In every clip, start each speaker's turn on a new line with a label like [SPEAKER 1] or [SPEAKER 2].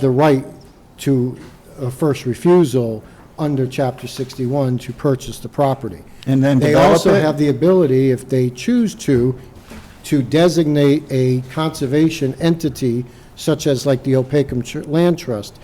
[SPEAKER 1] the right to a first refusal under Chapter 61 to purchase the property.
[SPEAKER 2] And then
[SPEAKER 1] They
[SPEAKER 2] develop
[SPEAKER 1] also
[SPEAKER 2] it?
[SPEAKER 1] have the ability, if they choose to, to designate a conservation entity, such as like the Opakam Tr- Land Trust,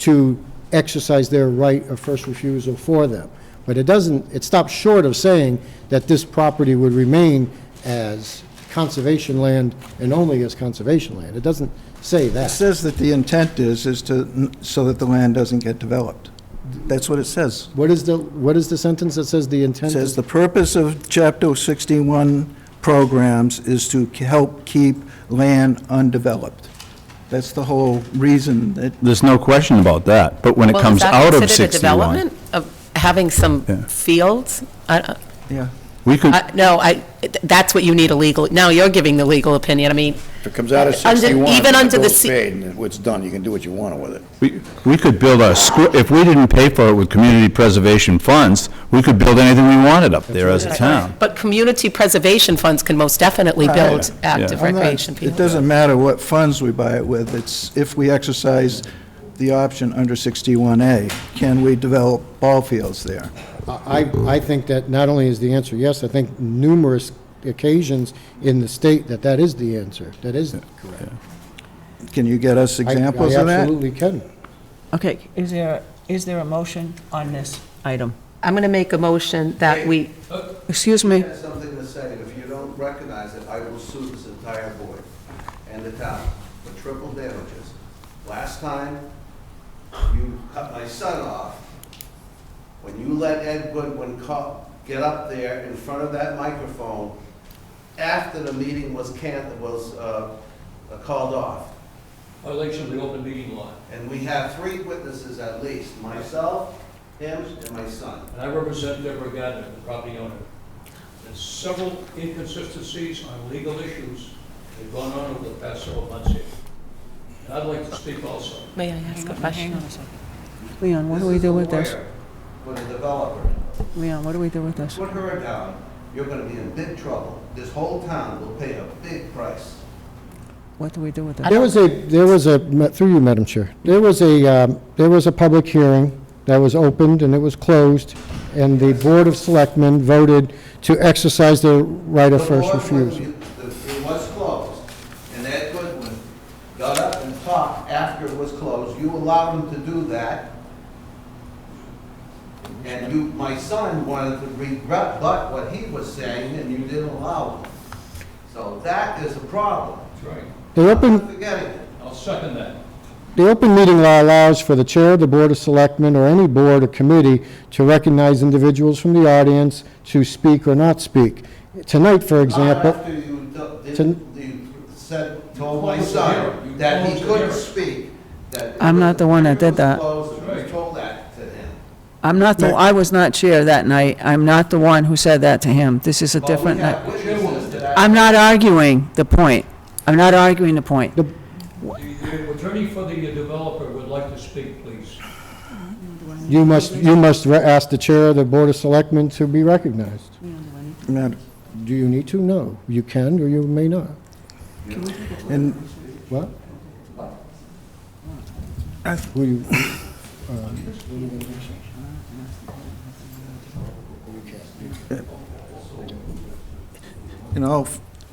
[SPEAKER 1] to exercise their right of first refusal for them. But it doesn't, it stops short of saying that this property would remain as conservation land and only as conservation land. It doesn't say
[SPEAKER 2] It
[SPEAKER 1] that.
[SPEAKER 2] says that the intent is, is to, so that the land doesn't get developed. That's what it says.
[SPEAKER 1] What is the, what is the sentence that says the
[SPEAKER 2] It
[SPEAKER 1] intent?
[SPEAKER 2] says
[SPEAKER 1] is-
[SPEAKER 2] the purpose of Chapter 61 programs is to k- help keep land undeveloped. That's the whole reason that,
[SPEAKER 3] There's no question about that, but when it comes out of 61.
[SPEAKER 4] Well, is that considered a development of having some
[SPEAKER 3] Yeah.
[SPEAKER 4] fields? I-
[SPEAKER 2] yeah.
[SPEAKER 3] We could,
[SPEAKER 4] I- No, I, that's what you need a legal, now you're giving the legal opinion, I mean,
[SPEAKER 5] If it comes out of
[SPEAKER 4] Under-
[SPEAKER 5] 61,
[SPEAKER 4] even
[SPEAKER 5] it's
[SPEAKER 4] under the
[SPEAKER 5] bills
[SPEAKER 4] C-
[SPEAKER 5] paid, and it's done, you can do what you want with it.
[SPEAKER 3] we we could build a, squ- if we didn't pay for it with community preservation funds, we could build anything we wanted up there as a town.
[SPEAKER 4] but community preservation funds can most definitely build active
[SPEAKER 2] I'm not-
[SPEAKER 4] recreation
[SPEAKER 2] It
[SPEAKER 4] fields.
[SPEAKER 2] doesn't matter what funds we buy it with, it's if we exercise the option under 61A, can we develop ball fields there?
[SPEAKER 1] I, I think that not only is the answer yes, I think numerous occasions in the state that that is the answer. That is correct.
[SPEAKER 2] Can you get us
[SPEAKER 1] I-
[SPEAKER 2] examples of
[SPEAKER 1] I
[SPEAKER 2] that?
[SPEAKER 1] absolutely can.
[SPEAKER 6] Okay, is there, is there a motion on this item?
[SPEAKER 4] I'm going to make a motion that we,
[SPEAKER 6] Excuse me,
[SPEAKER 7] I have something to say. If you don't recognize it, I will sue this entire board and the town for triple damages. Last time, you cut my son off. When you let Ed Goodwin co- get up there in front of that microphone after the meeting was can, was uh, called off.
[SPEAKER 8] Violation of the open meeting law,
[SPEAKER 7] And we have three witnesses at least, myself, him, and my son.
[SPEAKER 8] and I represent Deborah Gardner, the property owner. There's several inconsistencies on legal issues that have gone on over the past several months here. And I'd like to speak also.
[SPEAKER 4] may I ask a question?
[SPEAKER 6] Leon, what do we do with
[SPEAKER 7] This is
[SPEAKER 6] this?
[SPEAKER 7] a lawyer With a developer.
[SPEAKER 6] Leon, what do we do with this?
[SPEAKER 7] Put her down, you're gonna be in big trouble. This whole town will pay a big price.
[SPEAKER 6] What do we do with this?
[SPEAKER 1] There was a, there was a, through you, Madam Chair, there was a, um, there was a public hearing that was opened and it was closed, and the Board of Selectmen voted to exercise their right of
[SPEAKER 7] The
[SPEAKER 1] first
[SPEAKER 7] board would-
[SPEAKER 1] refusal.
[SPEAKER 7] the- It was closed, and Ed Goodwin got up and talked after it was closed. You allowed him to do that. And you, my son wanted to regret but what he was saying, and you didn't allow him. So that is a problem.
[SPEAKER 8] That's right.
[SPEAKER 1] The
[SPEAKER 7] I'm
[SPEAKER 1] open,
[SPEAKER 7] not forgetting it.
[SPEAKER 8] I'll second that.
[SPEAKER 1] The open meeting law allows for the chair of the Board of Selectmen or any board or committee to recognize individuals from the audience to speak or not speak. Tonight, for
[SPEAKER 7] Not
[SPEAKER 1] example,
[SPEAKER 7] after you d- did-
[SPEAKER 1] Ten-
[SPEAKER 7] you said, told
[SPEAKER 8] You
[SPEAKER 7] my
[SPEAKER 8] closed the hearing.
[SPEAKER 7] son
[SPEAKER 8] You
[SPEAKER 7] that he
[SPEAKER 8] closed the
[SPEAKER 7] couldn't
[SPEAKER 8] hearing.
[SPEAKER 7] speak, that.
[SPEAKER 6] I'm not the one that did that.
[SPEAKER 7] He was closed, and you
[SPEAKER 8] Right.
[SPEAKER 7] told that to him.
[SPEAKER 6] I'm not the, I was not chair that night. I'm not the one who said that to him. This is a
[SPEAKER 7] Well, we
[SPEAKER 6] different
[SPEAKER 7] have
[SPEAKER 6] night.
[SPEAKER 7] witnesses to that.
[SPEAKER 6] I'm not arguing the point. I'm not arguing the point.
[SPEAKER 8] The the attorney for the developer would like to speak, please.
[SPEAKER 1] you must, you must re- ask the chair of the Board of Selectmen to be recognized.
[SPEAKER 2] Madam-
[SPEAKER 1] Do you need to? No. You can or you may not.
[SPEAKER 2] And
[SPEAKER 1] What?
[SPEAKER 2] I-
[SPEAKER 1] Who you,
[SPEAKER 2] In all,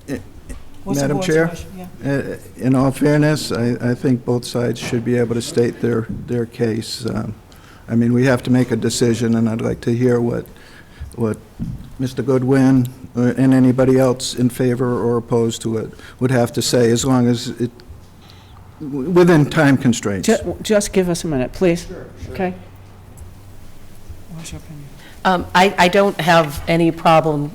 [SPEAKER 2] eh, Madam Chair, eh, in all fairness, I, I think both sides should be able to state their, their case. Um, I mean, we have to make a decision, and I'd like to hear what, what Mr. Goodwin or- and anybody else in favor or opposed to it would have to say, as long as it, w- within time constraints.
[SPEAKER 6] Ju- Just give us a minute, please. Okay? What's your opinion?
[SPEAKER 4] Um, I, I don't have any problem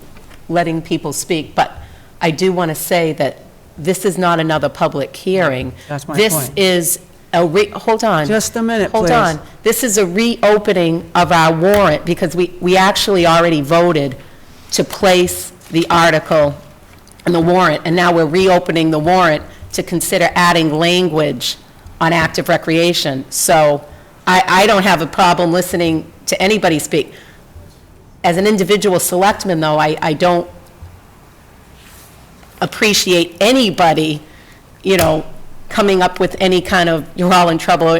[SPEAKER 4] letting people speak, but I do want to say that this is not another public hearing.
[SPEAKER 6] That's my
[SPEAKER 4] This
[SPEAKER 6] point.
[SPEAKER 4] is a re, hold on.
[SPEAKER 6] Just a minute,
[SPEAKER 4] Hold
[SPEAKER 6] please.
[SPEAKER 4] on. This is a reopening of our warrant, because we, we actually already voted to place the article in the warrant, and now we're reopening the warrant to consider adding language on active recreation. So I, I don't have a problem listening to anybody speak. As an individual selectman, though, I, I don't appreciate anybody, you know, coming up with any kind of, you're all in trouble,